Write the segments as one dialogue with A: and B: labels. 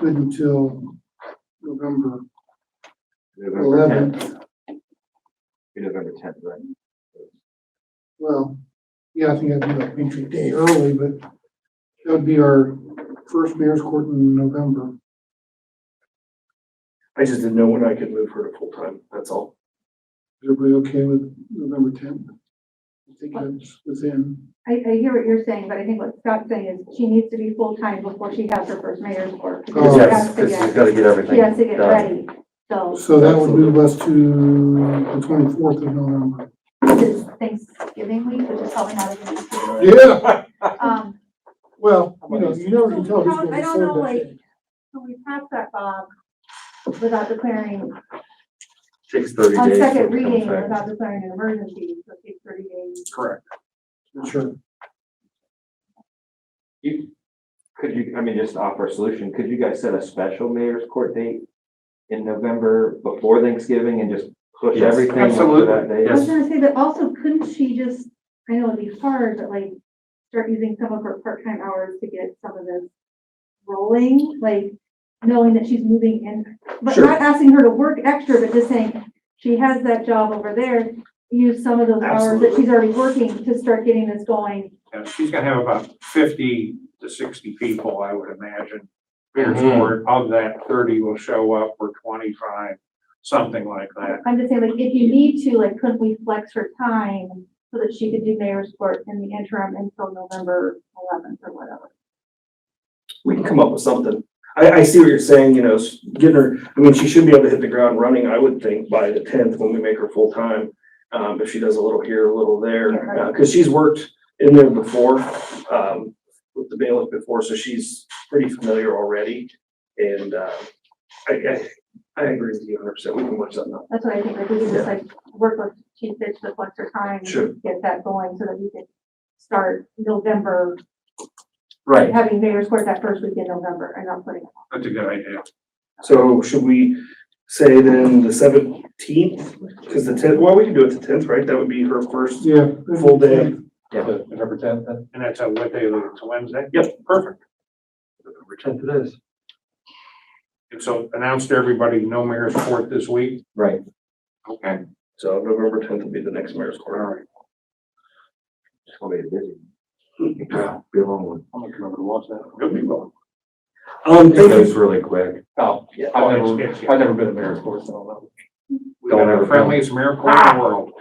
A: good until November
B: November tenth,
A: eleventh.
B: November tenth, right?
A: Well, yeah, I think I'd do like Patriot Day early, but that would be our first mayor's court in November.
C: I just didn't know when I could move her to full-time, that's all.
A: Is everybody okay with November tenth? I think that's within,
D: I, I hear what you're saying, but I think what Scott's saying is she needs to be full-time before she has her first mayor's court. because
A: Oh.
D: she
E: Yes,
D: has to
E: because she's
D: get-
E: gotta get everything.
D: She has to get
E: done.
D: ready, so
A: so that would move us to the twenty-fourth of November.
D: this is Thanksgiving week, which is probably not a good week.
A: Yeah,
D: Um,
A: well, you know, you never can tell who's gonna
D: I
A: be
D: don't know,
A: served
D: like, can we pass that, Bob, without declaring,
E: Takes thirty
D: on
E: days.
D: second
E: to
D: reading,
E: come back.
D: without declaring an emergency, so it takes thirty days.
C: Correct.
A: that day. Sure.
B: You, could you, I mean, just offer a solution, could you guys set a special mayor's court date in November before Thanksgiving and just push
E: Yes,
B: everything up to
C: absolutely.
B: that day?
D: I was gonna say, but also couldn't she just, I know it'd be hard, but like, start using some of her part-time hours to get some of this rolling, like, knowing that she's moving in, but
C: Sure.
D: not asking her to work extra, but just saying, she has that job over there, use some of those hours that
C: Absolutely.
D: she's already working to start getting this going.
F: Yeah, she's gonna have about fifty to sixty people, I would imagine. Here's
C: Mhm.
F: where of that thirty will show up or twenty-five, something like that.
D: I'm just saying, like, if you need to, like, couldn't we flex her time so that she could do mayor's court in the interim until November eleventh or whatever?
C: We can come up with something. I, I see what you're saying, you know, s- getting her, I mean, she should be able to hit the ground running, I would think, by the tenth when we make her full-time. Um, if she does a little here, a little there,
D: Yeah.
C: Uh, cause she's worked in there before, um, with the bailiff before, so she's pretty familiar already. And, uh, I, I, I agree with you hundred percent. We can work something out.
D: That's what I think, like, we could just like work with Chief Fitch to flex her time.
C: Sure.
D: Get that going so that we could start November,
E: Right,
D: having mayor's court that first weekend in November and not putting.
F: That's a good idea.
C: So should we say then the seventeenth? Cause the tenth, well, we can do it the tenth, right? That would be her first
A: Yeah.
C: full day.
G: November tenth, then?
F: And that's a, what day, is it? it's a Wednesday?
C: Yep.
F: Perfect.
G: November tenth it is.
F: And so announce to everybody, no mayor's court this week?
E: Right.
F: Okay,
C: So November tenth will be the next mayor's
F: all
C: court.
F: right.
B: It's gonna be busy.
E: yeah, be a long one.
F: I'm gonna come over to watch that. Good people.
C: Um,
E: It
C: thank you.
E: goes really quick.
G: Oh, yeah,
F: Oh,
G: I've
F: it's-
G: never,
F: it's-
G: I've never been a mayor's course, so I don't know.
F: We've
E: Don't
F: got
E: ever
F: the
E: come.
F: friendliest mayor court in the world.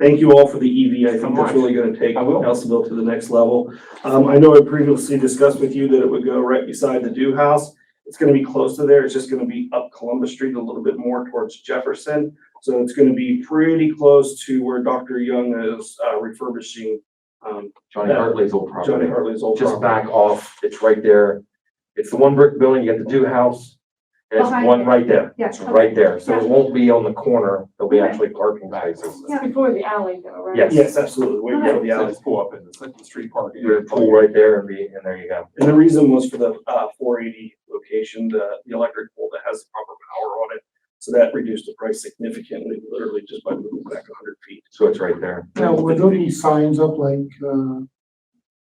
C: Thank you all for the EV. I
F: So
C: think
F: much.
C: that's really gonna take
F: I will.
C: Nelsonville to the next level. Um, I know I previously discussed with you that it would go right beside the Dew House. It's gonna be close to there. It's just gonna be up Columbus Street a little bit more towards Jefferson. So it's gonna be pretty close to where Dr. Young is uh, refurbishing, um,
E: Johnny Hartley's old
C: Johnny
E: property.
C: Hartley's old
E: Just
C: property.
E: back off, it's right there. It's the one brick building, you got the Dew House. And it's
D: Behind
E: one
D: it.
E: right there,
D: Yeah.
E: it's right there. So it won't be on the corner, there'll be actually parking spaces.
D: Yeah.
H: Before the alley though, right?
E: Yes.
C: Yes, absolutely. Way down the
G: So
C: alley.
G: just pull up in the Second Street Park.
E: You're gonna pull right there and be, and there you go.
C: And the reason was for the uh, four eighty location, the, the electric pole that has proper power on it. So that reduced the price significantly, literally just by moving back hundred feet.
E: So it's right there.
A: Now, would there be signs up like, uh,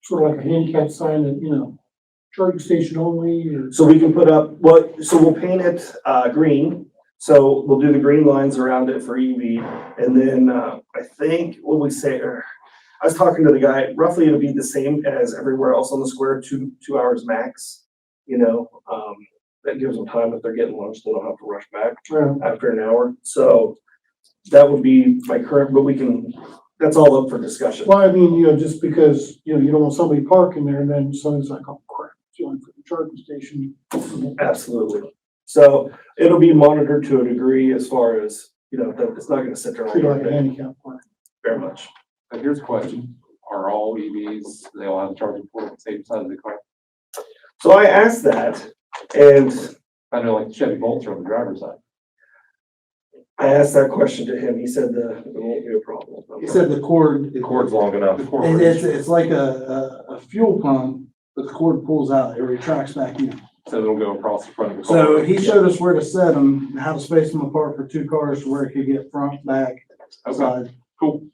A: sort of like a handicap sign that, you know, charging station only or?
C: So we can put up, well, so we'll paint it uh, green. So we'll do the green lines around it for EV. And then uh, I think what we say, or I was talking to the guy, roughly it'll be the same as everywhere else on the square, two, two hours max. You know, um, that gives them time if they're getting lunch, they don't have to rush back.
A: Well,
C: after an hour, so that would be my current, but we can, that's all up for discussion.
A: Well, I mean, you know, just because, you know, you don't want somebody parking there and then somebody's like, oh crap, going for the charging station.
C: Absolutely. So it'll be monitored to a degree as far as, you know, that it's not gonna sit there all
A: Treat it like a
C: day
A: handicap park.
C: very much.
G: But here's a question, are all EVs, they all have charging port on the same side of the car?
C: So I asked that, and
G: I know like Chevy Bolts are on the driver's side.
C: I asked that question to him, he said the, it won't be a problem.
I: He said the cord, it-
E: Cord's long enough.
G: The cord
I: and it's,
G: bridge.
I: it's like a, a, a fuel pump, but the cord pulls out, it retracts back in.
G: So it'll go across the front of the car.
I: So he showed us where to set them, how to space them apart for two cars to where it could get front, back,
G: Okay,
I: side.
G: cool.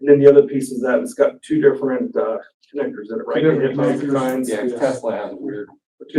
C: And then the other piece is that it's got two different, uh, connectors in it, right?
I: Two different
C: It has
I: connectors.
C: signs.
G: Yeah, 'cause Tesla has a weird